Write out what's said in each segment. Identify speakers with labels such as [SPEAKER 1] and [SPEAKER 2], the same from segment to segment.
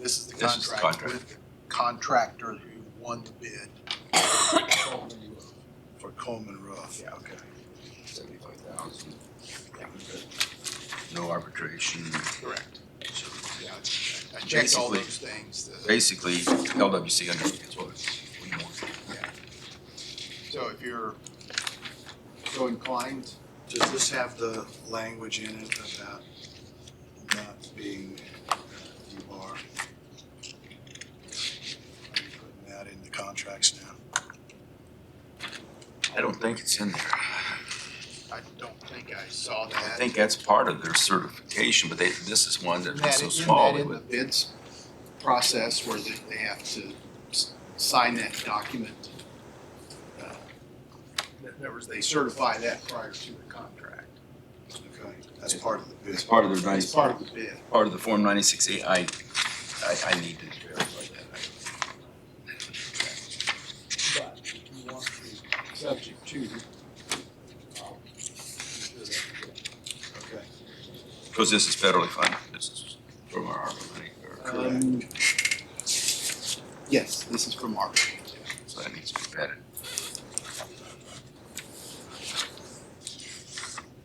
[SPEAKER 1] This is the
[SPEAKER 2] This is the
[SPEAKER 1] contract
[SPEAKER 2] contract.
[SPEAKER 1] with the contractor who won the bid for Coleman Roof.
[SPEAKER 2] Yeah, okay. Seventy-five thousand. No arbitration.
[SPEAKER 1] Correct.
[SPEAKER 2] So
[SPEAKER 1] Yeah, I checked all
[SPEAKER 2] Basically-
[SPEAKER 1] those things. the-
[SPEAKER 2] Basically, LWC understands what we want.
[SPEAKER 1] So if you're so inclined, does this have the language in it about not being debar? Are you Putting that in the contracts now?
[SPEAKER 2] I don't think it's in there.
[SPEAKER 1] I don't think I saw
[SPEAKER 2] I think that's part of their certification, but they, this is one that was
[SPEAKER 1] That-
[SPEAKER 2] so
[SPEAKER 1] isn't
[SPEAKER 2] small.
[SPEAKER 1] that
[SPEAKER 2] it
[SPEAKER 1] in the
[SPEAKER 2] would-
[SPEAKER 1] bids process where they they have to s- sign that document. Uh, In other words, they certify that prior to the contract.
[SPEAKER 3] Okay, that's part of the
[SPEAKER 2] It's
[SPEAKER 3] bid.
[SPEAKER 2] part of their,
[SPEAKER 1] It's
[SPEAKER 2] nice-
[SPEAKER 1] part of the bid.
[SPEAKER 2] part of the Form ninety-six A. I, I, I need to verify that.
[SPEAKER 1] But if you want to, subject to. um,
[SPEAKER 3] Okay.
[SPEAKER 2] Because this is federally funded. This is from our ARPA money. or-
[SPEAKER 1] um, Yes, this is from Mark.
[SPEAKER 2] So that needs to be vetted.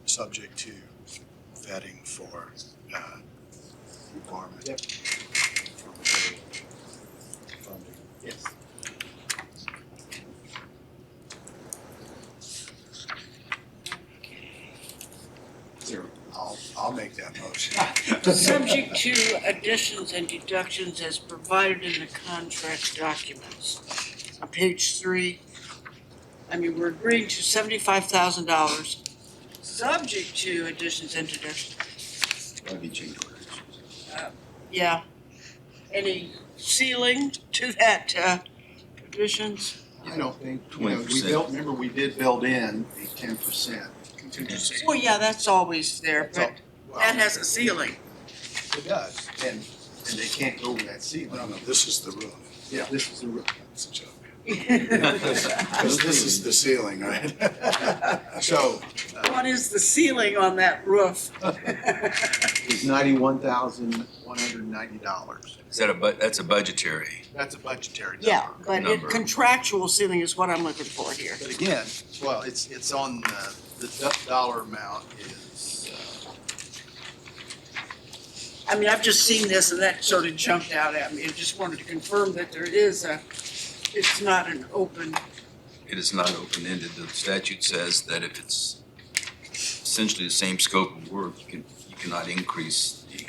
[SPEAKER 3] Subject to vetting for, uh, requirement.
[SPEAKER 1] Yep.
[SPEAKER 3] from the funding.
[SPEAKER 1] Yes.
[SPEAKER 3] There, I'll, I'll make that motion.
[SPEAKER 4] Subject to additions and deductions as provided in the contract documents. On page three, I mean, we're agreeing to seventy-five thousand dollars, subject to additions and deductions,
[SPEAKER 2] It's gotta be change orders.
[SPEAKER 4] yeah. Any ceiling to that, uh, additions?
[SPEAKER 1] I don't think, you know, we
[SPEAKER 2] 20%.
[SPEAKER 1] built, remember, we did build in a ten percent contingency. um,
[SPEAKER 4] Well, yeah, that's always there, but that has a ceiling.
[SPEAKER 1] It does, and, and they can't go over that ceiling.
[SPEAKER 3] No, no, this is the roof.
[SPEAKER 1] Yeah, this is the roof.
[SPEAKER 3] That's a joke.
[SPEAKER 4] What
[SPEAKER 3] This this is the ceiling, right?
[SPEAKER 1] So
[SPEAKER 4] is the ceiling on that roof?
[SPEAKER 1] it's ninety-one thousand, one hundred and ninety dollars.
[SPEAKER 2] Is that a, bu- that's a budgetary.
[SPEAKER 1] That's a budgetary number.
[SPEAKER 4] Yeah, but it-
[SPEAKER 2] Number.
[SPEAKER 4] contractual ceiling is what I'm looking for here.
[SPEAKER 1] But again, well, it's, it's on, uh, the do- dollar amount is, uh,
[SPEAKER 4] I mean, I've just seen this and that sort of jumped out at me. I just wanted to confirm that there is a, it's not an open,
[SPEAKER 2] It is not open-ended. The statute says that if it's essentially the same scope of work, you can, you cannot increase the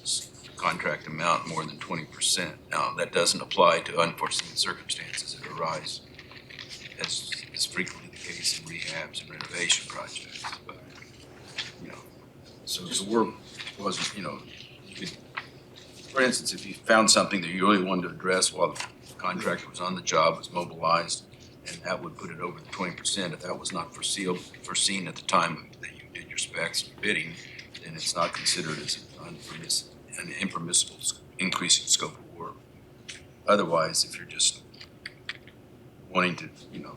[SPEAKER 2] s- contract amount more than twenty percent. Now, that doesn't apply to unforeseen circumstances that arise. That's, is frequently the case in rehabs and renovation projects, but, you know. So if the work wasn't, you know, you could, for instance, if you found something that you really wanted to address while the contractor was on the job, was mobilized, and that would put it over the twenty percent. If that was not foreseen, foreseen at the time that you did your specs and bidding, then it's not considered as an unpermiss, an impermissible s- increase in scope of work. Otherwise, if you're just wanting to, you know.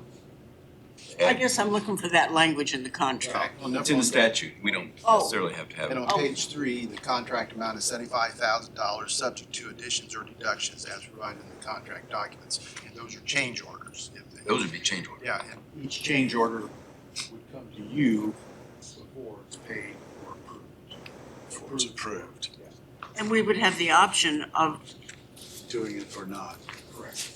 [SPEAKER 4] I
[SPEAKER 2] add-
[SPEAKER 4] guess I'm looking for that language in the contract.
[SPEAKER 1] on
[SPEAKER 2] It's in the
[SPEAKER 1] the-
[SPEAKER 2] statute. We don't
[SPEAKER 4] Oh.
[SPEAKER 2] necessarily have to have
[SPEAKER 1] And
[SPEAKER 2] it.
[SPEAKER 1] on page three, the contract amount is seventy-five thousand dollars, subject to additions or deductions as provided in the contract documents. And those are change orders. if they-
[SPEAKER 2] Those would be change orders.
[SPEAKER 1] Yeah, and each change order would come to you before it's paid or approved.
[SPEAKER 3] Before it's approved,
[SPEAKER 4] And we would have the option of,
[SPEAKER 3] doing it or not.
[SPEAKER 1] Correct.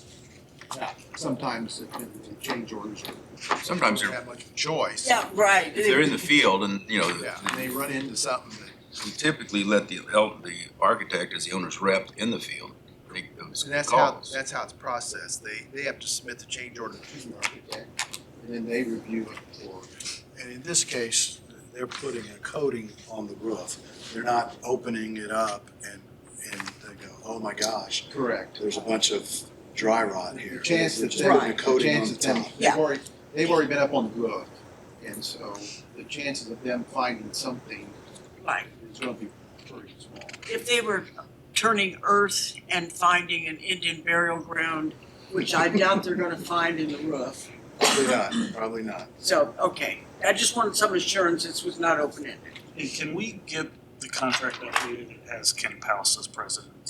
[SPEAKER 1] Now, sometimes if the change orders don't
[SPEAKER 2] Sometimes they're,
[SPEAKER 1] have much of a choice.
[SPEAKER 4] yeah, right.
[SPEAKER 2] if they're in the field and, you know,
[SPEAKER 1] Yeah, and they run into something that,
[SPEAKER 2] We typically let the, help the architect as the owner's rep in the field make those
[SPEAKER 1] and that's how,
[SPEAKER 2] calls.
[SPEAKER 1] that's how it's processed. They, they have to submit the change order to the architect, and then they review it for.
[SPEAKER 3] And in this case, they're putting a coating on the roof. They're not opening it up and, and they go, oh my gosh,
[SPEAKER 1] Correct.
[SPEAKER 3] there's a bunch of dry rot here.
[SPEAKER 1] The chance that
[SPEAKER 3] They're just
[SPEAKER 1] they,
[SPEAKER 3] putting a
[SPEAKER 4] Right.
[SPEAKER 1] the
[SPEAKER 3] coating
[SPEAKER 1] chance
[SPEAKER 3] on
[SPEAKER 1] that them,
[SPEAKER 3] top.
[SPEAKER 1] they've
[SPEAKER 4] Yeah.
[SPEAKER 1] already, they've already been up on the roof. And so the chances of them finding something
[SPEAKER 4] Right.
[SPEAKER 1] is gonna be pretty small.
[SPEAKER 4] If they were turning earth and finding an Indian burial ground, which I doubt they're gonna find in the roof.
[SPEAKER 3] Probably not, probably not.
[SPEAKER 4] So, okay, I just wanted some assurance this was not open-ended.
[SPEAKER 5] And can we get the contract updated as Ken Palace is president?